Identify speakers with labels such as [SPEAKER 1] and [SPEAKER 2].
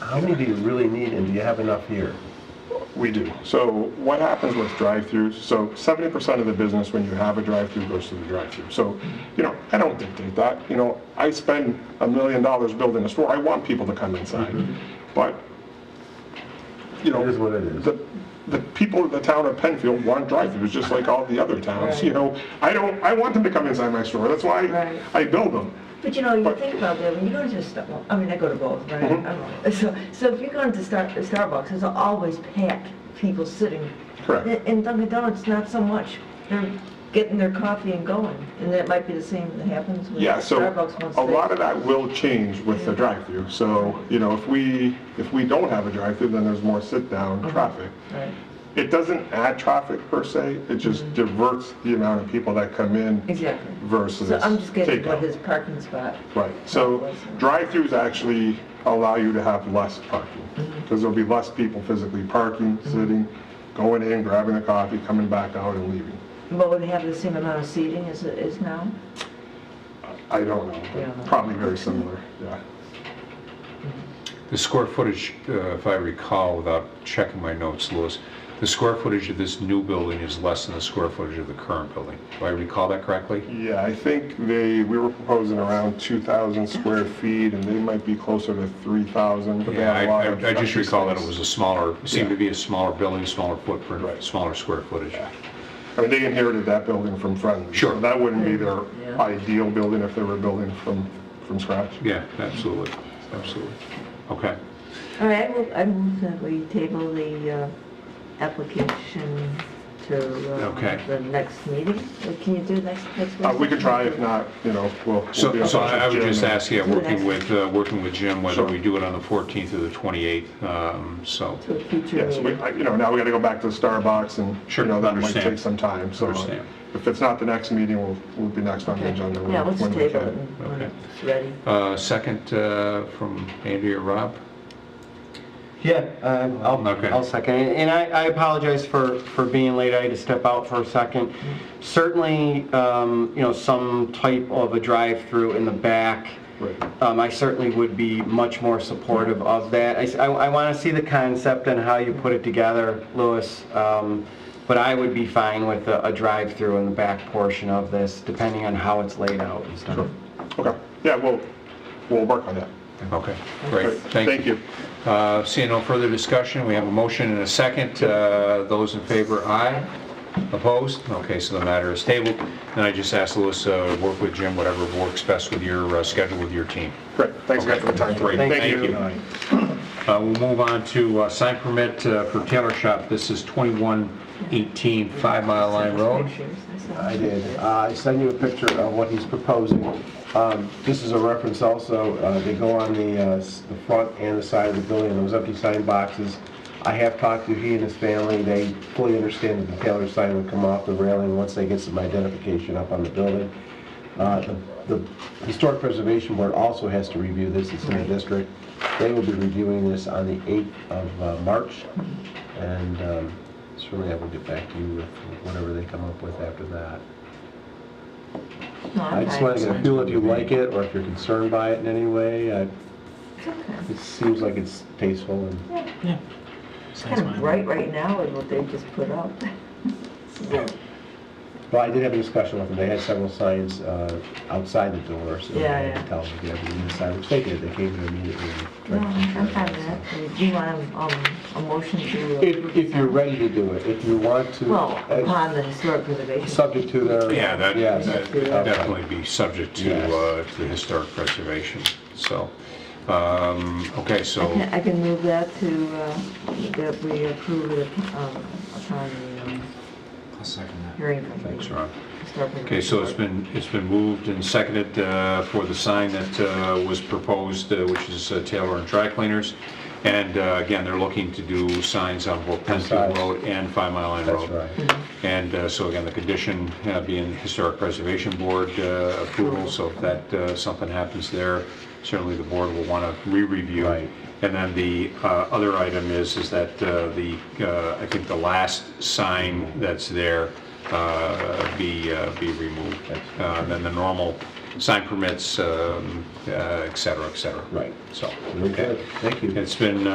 [SPEAKER 1] How many do you really need, and do you have enough here?
[SPEAKER 2] We do. So what happens with drive-throughs, so 70% of the business when you have a drive-through goes to the drive-through. So, you know, I don't dictate that. You know, I spend a million dollars building a store. I want people to come inside. But, you know.
[SPEAKER 1] It is Mm-hmm. what it is.
[SPEAKER 2] The, the people of the town of Penfield want drive-throughs, just like all the other towns, you
[SPEAKER 3] Right.
[SPEAKER 2] know. I don't, I want them to come inside my store. That's why
[SPEAKER 3] Right.
[SPEAKER 2] I build them.
[SPEAKER 3] But you know, you
[SPEAKER 2] But-
[SPEAKER 3] think about that, when you go to Star, well, I mean, I go to both, right?
[SPEAKER 2] Mm-hmm.
[SPEAKER 3] I'm- So, so if you're going to Star, Starbucks, there's always packed people sitting.
[SPEAKER 2] Correct.
[SPEAKER 3] In- In Dunkin' Donuts, not so much. They're getting their coffee and going, and that might be the same that happens with
[SPEAKER 2] Yeah, so
[SPEAKER 3] Starbucks once
[SPEAKER 2] a
[SPEAKER 3] they.
[SPEAKER 2] lot of that will change with the drive-through. So, you know, if we, if we don't have a drive-through, then there's more sit-down
[SPEAKER 3] Uh-huh.
[SPEAKER 2] traffic.
[SPEAKER 3] Right.
[SPEAKER 2] It doesn't add traffic per se, it just diverts the amount of people that come in
[SPEAKER 3] Exactly.
[SPEAKER 2] versus
[SPEAKER 3] Mm-hmm. So I'm just getting what his
[SPEAKER 2] takeout.
[SPEAKER 3] parking spot.
[SPEAKER 2] Right, so drive-throughs actually allow you to have less parking,
[SPEAKER 3] Mm-hmm.
[SPEAKER 2] because there'll be less people physically parking, sitting, going in, grabbing a coffee, coming back out and leaving.
[SPEAKER 3] What would have the same amount of seating as it is now?
[SPEAKER 2] I don't know, but
[SPEAKER 3] Yeah.
[SPEAKER 2] probably very similar, yeah.
[SPEAKER 4] The square footage, uh, if I recall, without checking my notes, Louis, the square footage of this new building is less than the square footage of the current building. Do I recall that correctly?
[SPEAKER 2] Yeah, I think they, we were proposing around 2,000 square feet, and they might be closer to 3,000. but they
[SPEAKER 4] Yeah,
[SPEAKER 2] had a
[SPEAKER 4] I-
[SPEAKER 2] lot
[SPEAKER 4] I
[SPEAKER 2] of
[SPEAKER 4] I just
[SPEAKER 2] empty
[SPEAKER 4] recall that it
[SPEAKER 2] space.
[SPEAKER 4] was a smaller, seemed to be a smaller building, smaller
[SPEAKER 2] Right.
[SPEAKER 4] footprint, smaller square footage.
[SPEAKER 2] I mean, they inherited that building from Friendly.
[SPEAKER 4] Sure.
[SPEAKER 2] so That wouldn't be their
[SPEAKER 3] Yeah.
[SPEAKER 2] ideal building if they were building from, from scratch.
[SPEAKER 4] Yeah, absolutely, absolutely. Okay.
[SPEAKER 3] All right, I move, I move that we table the uh, application to uh,
[SPEAKER 4] Okay.
[SPEAKER 3] the next meeting. Uh, Can you do next, next week?
[SPEAKER 2] Uh, We could try, if not, you know, we'll. we'll be
[SPEAKER 4] So
[SPEAKER 2] in
[SPEAKER 4] so
[SPEAKER 2] touch
[SPEAKER 4] I I
[SPEAKER 2] with
[SPEAKER 4] would
[SPEAKER 2] Jim
[SPEAKER 4] just
[SPEAKER 2] and-
[SPEAKER 4] ask, yeah, working
[SPEAKER 3] Next.
[SPEAKER 4] with, uh, working with Jim, whether
[SPEAKER 2] Sure.
[SPEAKER 4] we do it on the 14th or the 28th, um, so.
[SPEAKER 3] To a future
[SPEAKER 2] Yes, we,
[SPEAKER 3] meeting.
[SPEAKER 2] I- you know, now we got to go back to Starbucks, and, you
[SPEAKER 4] Sure,
[SPEAKER 2] know, that might
[SPEAKER 4] understand.
[SPEAKER 2] take some time. So uh,
[SPEAKER 4] Understand.
[SPEAKER 2] if it's not the next meeting, we'll, we'll be next on the
[SPEAKER 3] Okay.
[SPEAKER 2] agenda. when-
[SPEAKER 3] Yeah, let's
[SPEAKER 2] when we
[SPEAKER 3] table
[SPEAKER 2] can.
[SPEAKER 3] it and when
[SPEAKER 4] Okay.
[SPEAKER 3] it's ready.
[SPEAKER 4] Uh, Second uh, from Andy or Rob?
[SPEAKER 5] Yeah, um, I'll,
[SPEAKER 4] Okay.
[SPEAKER 5] I'll second it. And I I apologize for, for being late. I had to step out for a second. Certainly, um, you know, some type of a drive-through in the back.
[SPEAKER 2] Right.
[SPEAKER 5] Um, I certainly would be much more supportive of that. I s- I, want to see the concept and how you put it together, Louis. Um, But I would be fine with a, a drive-through in the back portion of this, depending on how it's laid out and stuff.
[SPEAKER 2] Okay, yeah, we'll, we'll work on that.
[SPEAKER 4] Okay, great,
[SPEAKER 2] Thank you.
[SPEAKER 4] Uh, Seeing no further discussion, we have a motion and a second. Uh, Those in favor, aye. Opposed? Okay, so the matter is tabled. And I just asked Louis, uh, work with Jim, whatever works best with your uh, schedule with your team.
[SPEAKER 2] Great, thanks again for the time.
[SPEAKER 4] Great,
[SPEAKER 2] Thank
[SPEAKER 4] thank you. Uh, We'll move on to uh, sign permit uh, for Taylor Shop. This is 2118 Five Mile Line Road.
[SPEAKER 3] Pictures, I saw.
[SPEAKER 6] I did. Uh, I sent you a picture of what he's proposing. Um, This is a reference also, uh, they go on the uh, s- the front and the side of the building, those empty sign boxes. I have talked to he and his family, they fully understand that the Taylor sign will come off the railing once they get some identification up on the building. Uh, The the Historic Preservation Board also has to review this, it's in the district. They will be reviewing this on the 8th of uh, March, and um, certainly I will get back to you with whatever they come up with after that.
[SPEAKER 3] No, I'm
[SPEAKER 6] I just
[SPEAKER 3] fine.
[SPEAKER 6] want to get a feel if you like it, or if you're concerned by it in any way. I-
[SPEAKER 3] It's okay.
[SPEAKER 6] It seems like it's tasteful and
[SPEAKER 3] It's kind of bright right now with what they just put up. So,
[SPEAKER 6] Well, I did have a discussion with them, they had several signs uh, outside the door, so I
[SPEAKER 3] Yeah,
[SPEAKER 6] had
[SPEAKER 3] yeah.
[SPEAKER 6] to tell them to get everything inside, which they did, they came in immediately. and
[SPEAKER 3] No,
[SPEAKER 6] tried to
[SPEAKER 3] I'm
[SPEAKER 6] control
[SPEAKER 3] fine
[SPEAKER 6] it, so.
[SPEAKER 3] with that. Uh, Do you want um, a motion to? uh,
[SPEAKER 6] If, if you're ready to do it, if you want to,
[SPEAKER 3] Well,
[SPEAKER 6] uh,
[SPEAKER 3] upon the historic preservation.
[SPEAKER 6] subject to their...
[SPEAKER 4] Yeah, that
[SPEAKER 6] Yes.
[SPEAKER 4] that would definitely be subject
[SPEAKER 6] Yes.
[SPEAKER 4] to uh, to the historic preservation, so. um, Okay, so.
[SPEAKER 3] I can- I can move that to, uh, that we approve it um, upon the um,
[SPEAKER 7] I'll second that.
[SPEAKER 3] hearing from the.
[SPEAKER 4] Thanks, Ron.
[SPEAKER 3] historic
[SPEAKER 4] Okay, so it's
[SPEAKER 3] preservation
[SPEAKER 4] been, it's been moved and seconded uh, for the sign that uh, was proposed, uh, which is uh, Taylor and Dry Cleaners. And uh, again, they're looking to do signs on both Penfield
[SPEAKER 6] Sides.
[SPEAKER 4] Road and Five Mile Line
[SPEAKER 6] That's
[SPEAKER 4] Road.
[SPEAKER 6] right.
[SPEAKER 4] And uh, so again, the condition uh, being Historic Preservation Board uh, approval, so if that, uh, something happens there, certainly the board will want to re-review.
[SPEAKER 6] Right.
[SPEAKER 4] And then the uh, other item is, is that uh, the, uh, I think the last sign that's there uh, be, uh, be removed. Uh, Then the normal sign permits, um, uh, et cetera, et cetera.
[SPEAKER 6] Right.
[SPEAKER 4] So,
[SPEAKER 6] Okay, thank you.
[SPEAKER 4] it's been, uh,